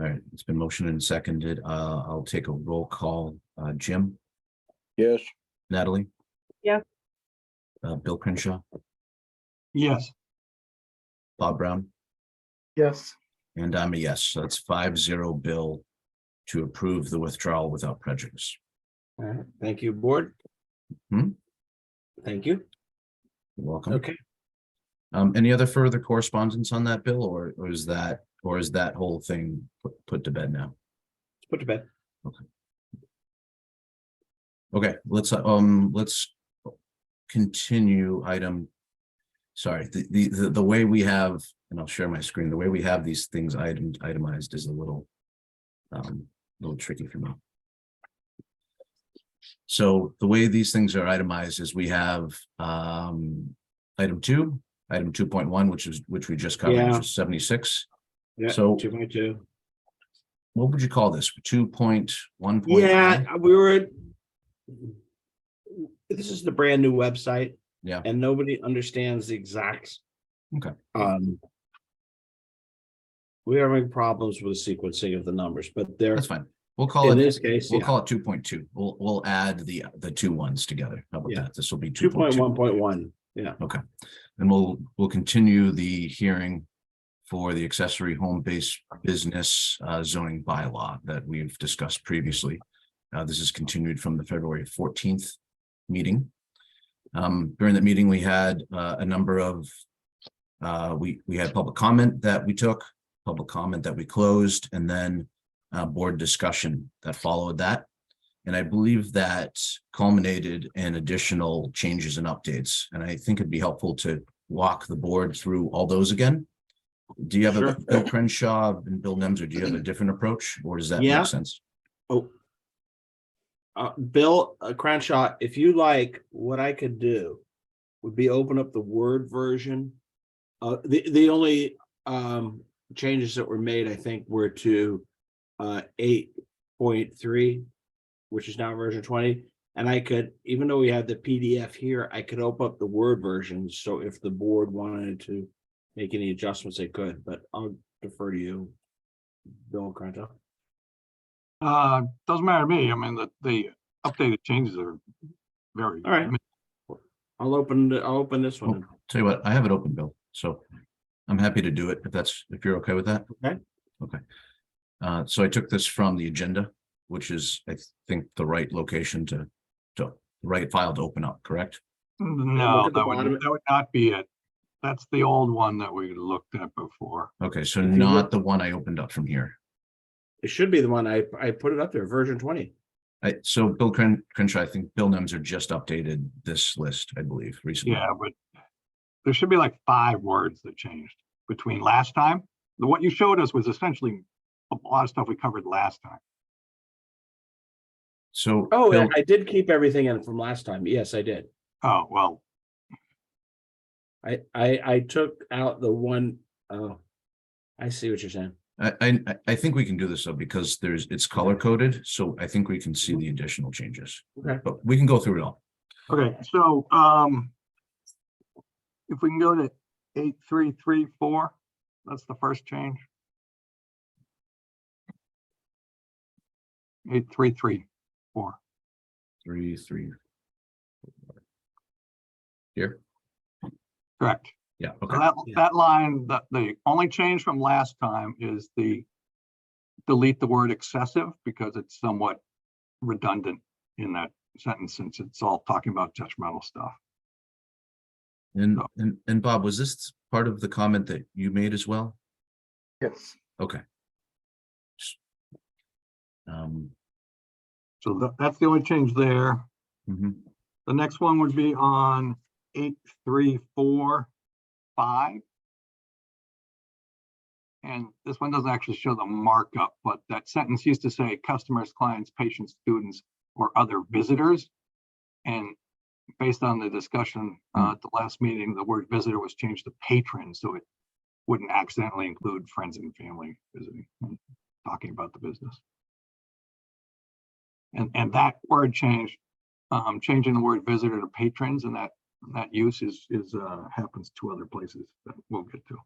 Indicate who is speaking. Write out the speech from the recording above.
Speaker 1: All right, it's been motioned and seconded. Uh, I'll take a roll call. Uh, Jim,
Speaker 2: Yes.
Speaker 1: Natalie?
Speaker 3: Yeah.
Speaker 1: Uh, Bill Crenshaw,
Speaker 4: Yes.
Speaker 1: Bob Brown,
Speaker 4: Yes.
Speaker 1: and I'm a yes. So that's five zero bill to approve the withdrawal without prejudice.
Speaker 5: All right, thank you, board.
Speaker 1: Hmm?
Speaker 5: Thank you.
Speaker 1: You're Welcome.
Speaker 5: Okay,
Speaker 1: Um, any other further correspondence on that bill or, or is that, or is that whole thing put- put to bed now?
Speaker 5: let's put to bed.
Speaker 1: Okay, let's, uh, um, let's continue item. Sorry, the, the, the, the way we have, and I'll share my screen, the way we have these things item, itemized is a little. Um, little tricky for me. So the way these things are itemized is we have, um, item two, item two point one, which is, which we just covered,
Speaker 5: Yeah.
Speaker 1: which is seventy-six.
Speaker 5: Yeah,
Speaker 1: So-
Speaker 5: Two point two.
Speaker 1: What would you call this? Two point one?
Speaker 5: Yeah, we were. This is the brand new website.
Speaker 1: Yeah.
Speaker 5: And nobody understands the exact.
Speaker 1: Okay.
Speaker 5: Um. We are having problems with sequencing of the numbers, but there,
Speaker 1: That's fine. We'll call it.
Speaker 5: in this case,
Speaker 1: We'll
Speaker 5: yeah,
Speaker 1: call it two point two. We'll, we'll add the, the two ones together. How about
Speaker 5: Yeah.
Speaker 1: that? This will be
Speaker 5: two
Speaker 1: two
Speaker 5: point one point one, yeah.
Speaker 1: And we'll, we'll continue the hearing for the accessory home-based business uh, zoning bylaw that we've discussed previously. Uh, this is continued from the February fourteenth meeting. Um, during that meeting, we had uh, a number of uh, we, we had public comment that we took, public comment that we closed, and then uh, board discussion that followed that. And I believe that culminated in additional changes and updates. And I think it'd be helpful to walk the board through all those again. Do you have a
Speaker 5: Sure.
Speaker 1: Bill Crenshaw and Bill Nemser, do you have a different approach or does that
Speaker 5: Yeah.
Speaker 1: make sense?
Speaker 5: Oh. Uh, Bill uh, Crenshaw, if you like, what I could do would be open up the Word version. Uh, the, the only, um, changes that were made, I think, were to, uh, eight point three, which is now version twenty. And I could, even though we have the PDF here, I could open up the Word version. So if the board wanted to make any adjustments, they could, but I'll defer to you. Bill Crenshaw.
Speaker 4: Uh, doesn't matter to me. I mean, the, the updated changes are very.
Speaker 5: All right. I'll open, the- I'll open this one.
Speaker 1: Tell you what, I have it open, Bill, so I'm happy to do it if that's, if you're okay with that.
Speaker 5: Okay.
Speaker 1: Okay. Uh, so I took this from the agenda, which is, I think, the right location to, to, right file to open up, correct?
Speaker 5: look
Speaker 4: No,
Speaker 5: at the
Speaker 4: that would,
Speaker 5: bottom.
Speaker 4: that would not be it. That's the old one that we looked at before.
Speaker 1: Okay, so
Speaker 5: If you
Speaker 1: not
Speaker 5: look-
Speaker 1: the one I opened up from here.
Speaker 5: It should be the one I, I put it up there, version twenty.
Speaker 1: I, so Bill Cren- Crenshaw, I think Bill Nemser just updated this list, I believe, recently.
Speaker 4: Yeah, but there should be like five words that changed between last time. The- What you showed us was essentially a lot of stuff we covered last time.
Speaker 1: So.
Speaker 5: Oh,
Speaker 1: Bill-
Speaker 5: and I did keep everything in from last time. Yes, I did.
Speaker 4: Oh, well,
Speaker 5: I, I, I took out the one, oh. I see what you're saying.
Speaker 1: I, I, I- I think we can do this though, because there's, it's color coded, so I think we can see the additional changes.
Speaker 5: Okay.
Speaker 1: But we can go through it all.
Speaker 4: okay, so, um, if we can go to eight, three, three, four, that's the first change. Eight, three, three, four.
Speaker 1: Three, three. Here,
Speaker 4: Correct.
Speaker 1: yeah,
Speaker 4: So
Speaker 1: okay,
Speaker 4: That,
Speaker 5: Yeah.
Speaker 4: that line, that the only change from last time is the delete the word excessive because it's somewhat redundant in that sentence since it's all talking about judgmental stuff.
Speaker 1: and, and, and Bob, was this part of the comment that you made as well?
Speaker 4: Yes.
Speaker 1: Okay. Um,
Speaker 4: So tha- that's the only change there.
Speaker 1: mhm.
Speaker 4: The next one would be on eight, three, four, five. And this one doesn't actually show the markup, but that sentence used to say customers, clients, patients, students, or other visitors. And based on the discussion uh, at the last meeting, the word visitor was changed to patron, so it wouldn't accidentally include friends and family visiting, and talking about the business. And, and that word change um, changing the word visitor to patrons and that, that use is, is, uh, happens to other places that we'll get to.